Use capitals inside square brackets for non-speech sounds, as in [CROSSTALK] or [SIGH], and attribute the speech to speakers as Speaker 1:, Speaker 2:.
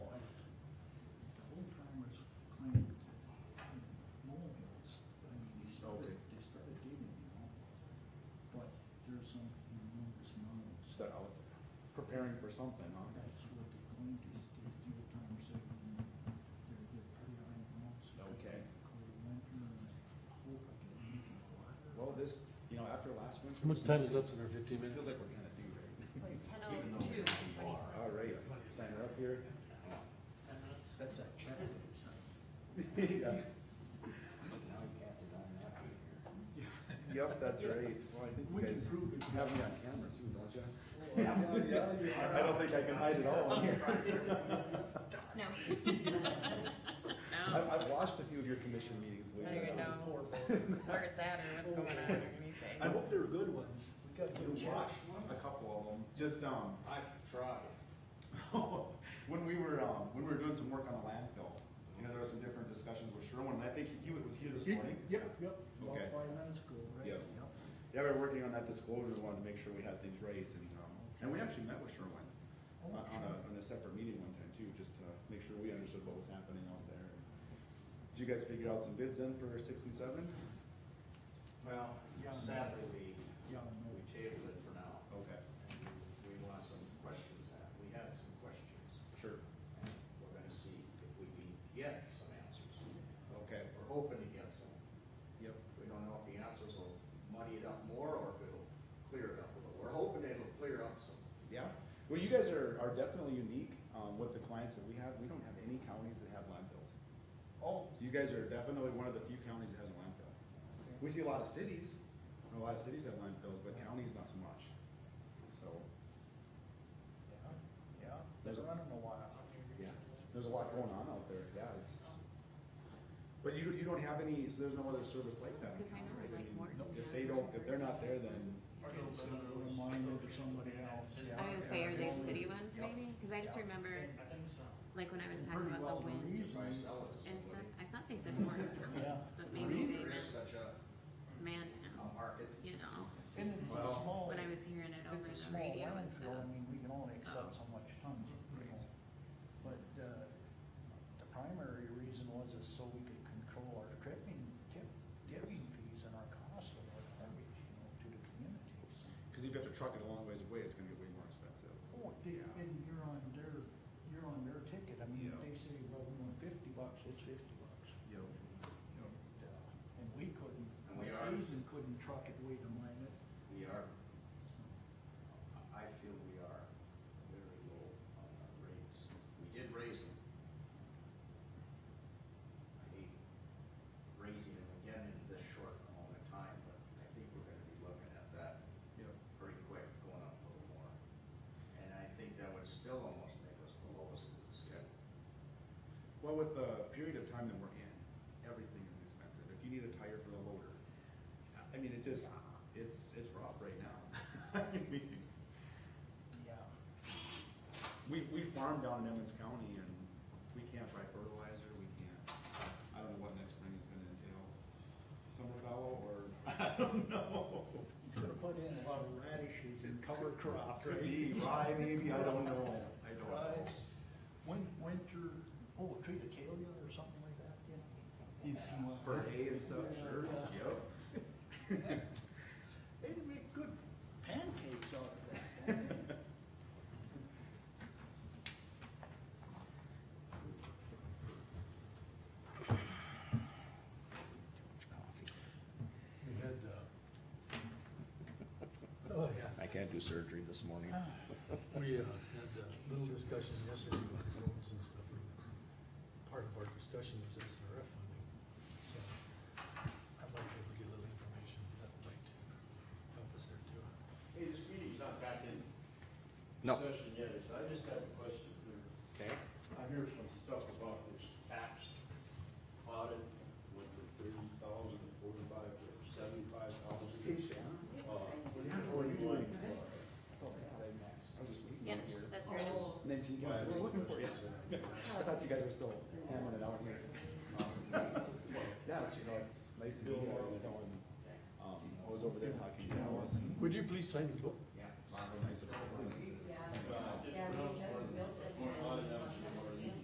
Speaker 1: or something on it.
Speaker 2: That's what they're going to, is they do a timer segment, and they're, they're pretty high in the months.
Speaker 1: Okay.
Speaker 2: Hope I can make it a lot.
Speaker 1: Well, this, you know, after last winter.
Speaker 3: How much time is left in
Speaker 1: It
Speaker 3: our fifteen
Speaker 1: feels
Speaker 3: minutes?
Speaker 1: like we're kind of due right
Speaker 4: It was ten
Speaker 1: now.
Speaker 4: oh
Speaker 1: even though
Speaker 4: two.
Speaker 1: we are. All right, sign her up here. [LAUGHS]
Speaker 2: That's a check. That's
Speaker 1: Yeah. Yep, that's right. Well, I think you
Speaker 2: We can
Speaker 1: guys
Speaker 2: prove it.
Speaker 1: have me on camera too, don't you? [LAUGHS]
Speaker 5: I
Speaker 1: I don't think I can hide it all on here. [LAUGHS]
Speaker 4: No. [LAUGHS]
Speaker 1: I've, I've watched a few of your commission meetings. believe
Speaker 4: I
Speaker 1: it
Speaker 4: don't even
Speaker 1: or not.
Speaker 4: know where it's at or what's going on or anything.
Speaker 2: hope they're good ones. We got
Speaker 1: You watched a couple of them, just, um,
Speaker 5: I've tried.
Speaker 1: [LAUGHS] when we were, um, when we were doing some work on the landfill, you know, there were some different discussions with Sherwin, and I think he was here this morning.
Speaker 2: Yep, yep, about
Speaker 1: Okay.
Speaker 2: five minutes ago, right?
Speaker 1: Yep. Yeah, we were working on that disclosure, we wanted to make sure we had things right, and, um, and we actually met with Sherwin on,
Speaker 2: Oh,
Speaker 1: on a,
Speaker 2: sure.
Speaker 1: on a separate meeting one time too, just to make sure we understood what was happening out there. Did you guys figure out some bids then for six and seven?
Speaker 5: Well, sadly, we,
Speaker 2: Yeah, no,
Speaker 5: we tabled it for now.
Speaker 1: Okay,
Speaker 5: And we want some questions at, we had some questions.
Speaker 1: sure,
Speaker 5: And we're gonna see if we can get some answers.
Speaker 1: okay,
Speaker 5: We're hoping to get some.
Speaker 1: yep,
Speaker 5: We don't know if the answers will muddy it up more or if it'll clear it up a little. We're hoping it'll clear up some.
Speaker 1: yeah. Well, you guys are, are definitely unique, um, with the clients that we have, we don't have any counties that have landfills.
Speaker 2: oh,
Speaker 1: So you guys are definitely one of the few counties that has a landfill. We see a lot of cities, and a lot of cities have landfills, but counties not so much. So,
Speaker 2: yeah, yeah,
Speaker 1: There's a-
Speaker 2: I don't know why.
Speaker 1: yeah, there's a lot going on out there, yeah, it's. But you, you don't have any, so there's no other service like that. in
Speaker 4: Because I
Speaker 1: town,
Speaker 4: know,
Speaker 1: right?
Speaker 4: like,
Speaker 1: mean,
Speaker 4: Morton
Speaker 1: If they don't, if they're not there, then,
Speaker 2: Reminder to somebody else.
Speaker 4: I was gonna say, are they
Speaker 2: Yeah.
Speaker 4: city ones maybe? Cause I just remember, like, when I was talking about the wind
Speaker 5: If I sell it to
Speaker 4: and stuff,
Speaker 5: somebody.
Speaker 4: I thought they said Morton County,
Speaker 2: Yeah.
Speaker 4: but
Speaker 5: I
Speaker 4: maybe
Speaker 5: mean,
Speaker 4: they
Speaker 5: there is
Speaker 4: meant
Speaker 5: such a, a
Speaker 4: Manhound,
Speaker 5: market.
Speaker 4: you know?
Speaker 2: And it's a
Speaker 5: Well,
Speaker 2: small.
Speaker 4: When I was hearing it over
Speaker 2: It's a
Speaker 4: the
Speaker 2: small
Speaker 4: radio and stuff.
Speaker 2: landfill, I mean, we can only
Speaker 4: so.
Speaker 2: accept so much tons, you know. But, uh, the primary reason was is so we could control our tipping, tip, tipping
Speaker 1: Yes.
Speaker 2: fees and our cost of our garbage, you know, to the communities.
Speaker 1: cause if you have to truck it a long ways away, it's gonna get way more expensive.
Speaker 2: Oh, di-
Speaker 1: Yeah.
Speaker 2: and you're on their, you're on their ticket, I mean,
Speaker 1: Yeah.
Speaker 2: they say, well, we want fifty bucks, it's fifty bucks.
Speaker 1: You know, you know,
Speaker 2: And, uh, And we couldn't,
Speaker 5: And we are-
Speaker 2: Hazen couldn't truck it way to mine it.
Speaker 5: We are, I feel we are very low on our rates. We did raise them. I hate raising them again in this short amount of time, but I think we're gonna be looking at that
Speaker 1: you know,
Speaker 5: pretty quick, going up a little more. And I think that would still almost make us the lowest in the state.
Speaker 1: Well, with the period of time that we're in, everything is expensive. If you need a tire for the loader, I- I mean, it just, it's, it's rough right now. [LAUGHS] I mean,
Speaker 2: Yeah.
Speaker 1: We, we farm down in Emmons County and we can't buy fertilizer, we can't, I don't know what next spring is gonna entail. Summer fallow or, [LAUGHS] I don't know.
Speaker 2: It's gonna put in a lot of radishes and cover crop,
Speaker 1: Could
Speaker 2: right?
Speaker 1: be rye maybe, I don't know, I don't know.
Speaker 2: Rye. Win, winter, oh, triticale or something like that, you know? You see what-
Speaker 1: For hay and stuff, sure,
Speaker 2: Yeah.
Speaker 1: yep.
Speaker 2: They'd make good pancakes out of that. don't they?
Speaker 3: We had, uh, oh, yeah,
Speaker 6: I can't do surgery this morning.
Speaker 3: we, uh, had uh, little discussion yesterday about roads and stuff. and Part of our discussion was SRF funding, so I'd like to get a little information that might help us there too.
Speaker 7: Hey, this meeting's not back in
Speaker 6: No.
Speaker 7: session yet, so I just have a question here.
Speaker 6: Okay.
Speaker 7: I hear some stuff about this tax audit with the thirty thousand, forty-five, or seventy-five thousand. Uh,
Speaker 1: what are you doing?
Speaker 5: Oh, yeah. They max.
Speaker 1: I was just waiting
Speaker 4: Yep,
Speaker 1: over here.
Speaker 4: that's right.
Speaker 1: And then she goes, we're looking for you. I thought you guys were still hammering it out here. Yeah, it's, you know, it's nice to be here, I was going, um, I was over there talking to Alice. and-
Speaker 3: Would you please sign the book?
Speaker 1: Yeah. Lots of nice surprises.
Speaker 7: Well, I just put up